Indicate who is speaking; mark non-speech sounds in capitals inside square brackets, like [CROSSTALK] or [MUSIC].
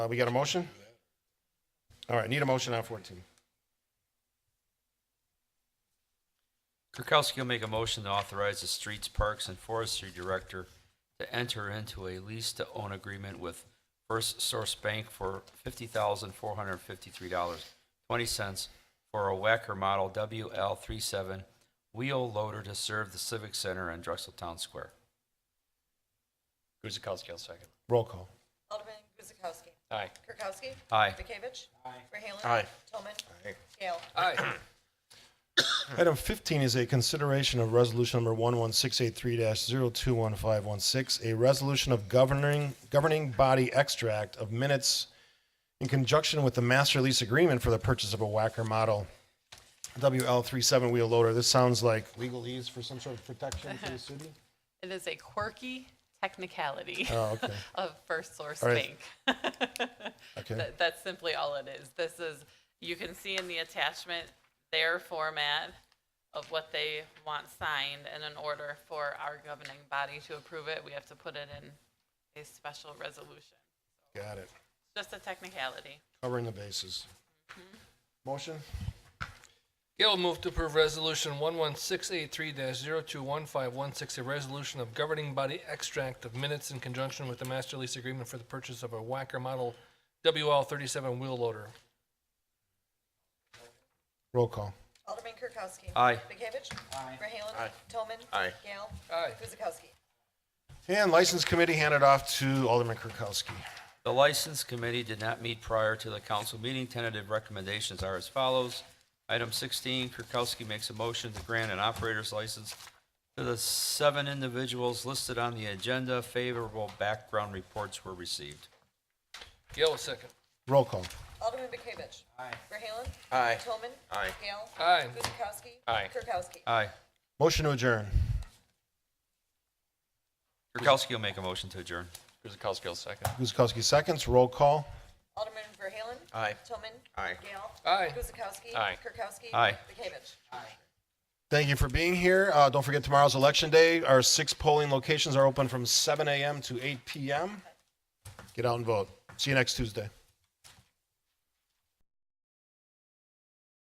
Speaker 1: Uh, we got a motion? All right, need a motion on fourteen.
Speaker 2: Kirkowski will make a motion to authorize the Streets, Parks, and Forestry Director to enter into a lease-to-own agreement with First Source Bank for $50,453.20 for a Wacker Model WL37 wheel loader to serve the Civic Center and Drexel Town Square. Guzekowski, I'll second.
Speaker 1: Roll call.
Speaker 3: Alderman Guzekowski.
Speaker 2: Aye.
Speaker 3: Kirkowski.
Speaker 2: Aye.
Speaker 3: Bekavich. Aye. Verhaelen.
Speaker 1: Aye.
Speaker 3: Tillman. Gale.
Speaker 2: Aye.
Speaker 1: Item 15 is a consideration of resolution number 11683-021516, a resolution of governing, governing body extract of minutes in conjunction with the master lease agreement for the purchase of a Wacker model WL37 wheel loader. This sounds like legalese for some sort of protection for the city?
Speaker 4: It is a quirky technicality
Speaker 1: [LAUGHS] Oh, okay,
Speaker 4: [LAUGHS] of First Source
Speaker 1: All right.
Speaker 4: Bank.
Speaker 1: okay.
Speaker 4: [LAUGHS] That- That's simply all it is. This is, you can see in the attachment, their format of what they want signed, and in order for our governing body to approve it, we have to put it in a special resolution.
Speaker 1: Got it.
Speaker 4: Just a technicality.
Speaker 1: Covering the bases. Motion?
Speaker 5: Gail will move to approve Resolution 11683-021516, a resolution of governing body extract of minutes in conjunction with the master lease agreement for the purchase of a Wacker Model WL37 wheel loader.
Speaker 1: Roll call.
Speaker 3: Alderman Kirkowski.
Speaker 2: Aye.
Speaker 3: Bekavich. Aye. Verhaelen. Aye. Tillman.
Speaker 6: Aye.
Speaker 3: Gale.
Speaker 5: Aye.
Speaker 3: Guzekowski.
Speaker 1: And License Committee handed off to Alderman Kirkowski.
Speaker 2: The License Committee did not meet prior to the council meeting. Tentative recommendations are as follows. Item 16, Kirkowski makes a motion to grant an operator's license to the seven individuals listed on the agenda. Favorable background reports were received.
Speaker 5: Gail, a second.
Speaker 1: Roll call.
Speaker 3: Alderman Bekavich. Aye. Verhaelen.
Speaker 6: Aye.
Speaker 3: Tillman.
Speaker 6: Aye.
Speaker 3: Gale.
Speaker 5: Aye.
Speaker 3: Guzekowski.
Speaker 5: Aye.
Speaker 3: Kirkowski.
Speaker 2: Aye.
Speaker 1: Motion to adjourn.
Speaker 2: Kirkowski will make a motion to adjourn.
Speaker 6: Guzekowski will second.
Speaker 1: Guzekowski seconds, roll call.
Speaker 3: Alderman Verhaelen.
Speaker 6: Aye.
Speaker 3: Tillman.
Speaker 6: Aye.
Speaker 3: Gale.
Speaker 5: Aye.
Speaker 3: Guzekowski.
Speaker 6: Aye.
Speaker 3: Kirkowski.
Speaker 2: Aye.
Speaker 3: Bekavich.
Speaker 1: Thank you for being here. Uh, don't forget tomorrow's election day. Our six polling locations are open from 7 a.m. to 8 p.m. Get out and vote. See you next Tuesday.